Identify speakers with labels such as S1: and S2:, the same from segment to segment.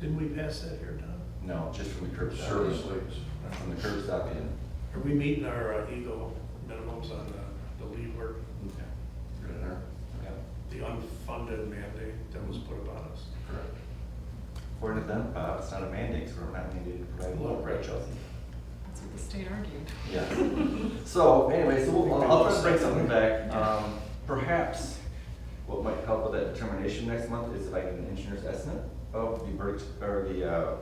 S1: Didn't we pass that here, Tom?
S2: No, just from the curb stop.
S3: Service
S2: in.
S3: lanes.
S2: From the curb stop in.
S1: Are we meeting our uh, Eagle minimums on the- the lead work,
S2: Okay. Good there. Yeah,
S1: the unfunded mandate that was put upon us?
S2: correct. According to them, Bob, it's not a mandate, so we're not needed to provide law, right, Chelsea?
S4: That's what the state argued.
S2: Yeah. So anyway, so we'll- I'll, I'll try to bring something back.
S4: Yeah.
S2: Um, perhaps what might help with that determination next month is if I get an engineer's estimate of the Birch, or the, uh,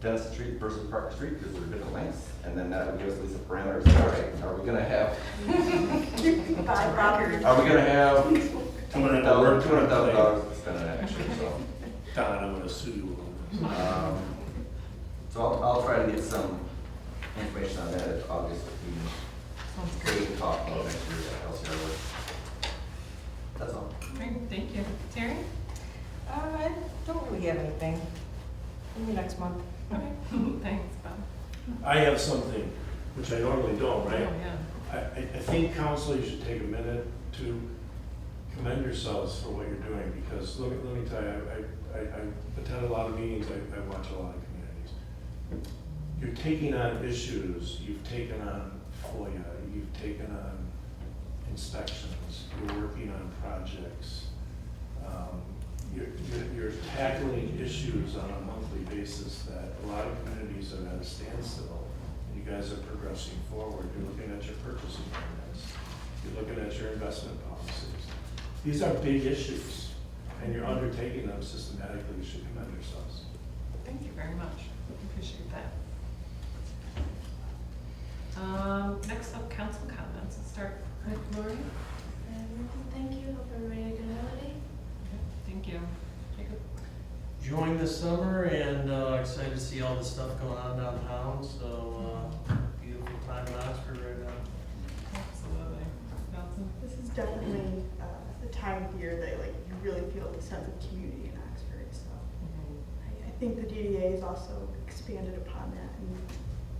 S2: Dennis Street versus Park Street, because they're different lengths. And then that would give us at least a parameter, of, all right, are we gonna have,
S5: Five properties.
S2: are we gonna have two hundred thousand, two hundred thousand dollars to spend on that, actually, so.
S1: Don, I'm gonna sue you. on this.
S2: Um, So I'll, I'll try to get some information on that at August meeting.
S4: Sounds
S2: We
S4: great.
S2: can talk about next year's LCR work. That's all.
S4: Great, thank you. Terry?
S5: Uh, I don't really have anything. Maybe next month.
S4: Okay, thanks, Bob.
S6: I have something, which I normally don't,
S4: Oh,
S6: right?
S4: yeah.
S6: I, I I think council, you should take a minute to commend yourselves for what you're doing, because let me, let me tell you, I, I, I attend a lot of meetings, I, I watch a lot of communities. You're taking on issues, you've taken on FOIA, you've taken on inspections, you're working on projects. Um, You're, you're- you're tackling issues on a monthly basis that a lot of communities are at a standstill. And you guys are progressing forward. You're looking at your purchasing plans. You're looking at your investment policies. These are big issues, and you're undertaking them systematically. You should commend yourselves.
S4: Thank you very much. Appreciate that. Um, next up, council comments. Let's start with Lori. Okay,
S7: Um, Thank you, hope everybody had a good holiday.
S4: Thank you. Jacob?
S8: enjoying the summer and uh, excited to see all the stuff going on downtown, so uh, beautiful time in Oxford right now.
S4: Absolutely. Nelson?
S9: This is definitely uh, the time of year that like you really feel the sense of community in Oxford. So
S4: Mm-hmm.
S9: I, I think the DDA has also expanded upon that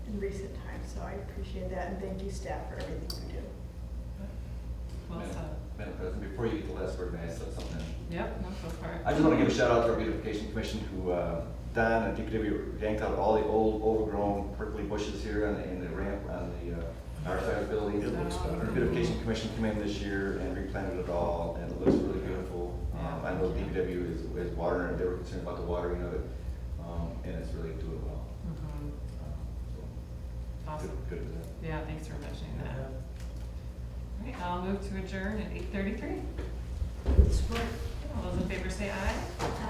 S9: in, in recent times. So I appreciate that and thank you staff for everything you do.
S4: Well
S2: Madam-
S4: said.
S2: Madam President, before you get the last word, may I say something?
S4: Yep, no, go for it.
S2: I just want to give a shout out to our beautification commission who, uh, Don and DPW yanked out all the old overgrown prickly bushes here on the, in the ramp on the, uh, our side of the building.
S1: It looks better.
S2: Our Beautification commission came in this year and replanted it all and it looks really beautiful. Um, I know DPW is, is watering, it. they were concerned about the watering of it, um, and it's really doing well.
S4: Mhm.
S2: Um, so,
S4: Awesome.
S2: Good, good for that.
S4: Yeah, thanks for mentioning that. All right, I'll move to adjourn at
S7: Uh,
S4: eight thirty-three. All those in favor say aye.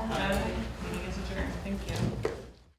S4: Aye. Meeting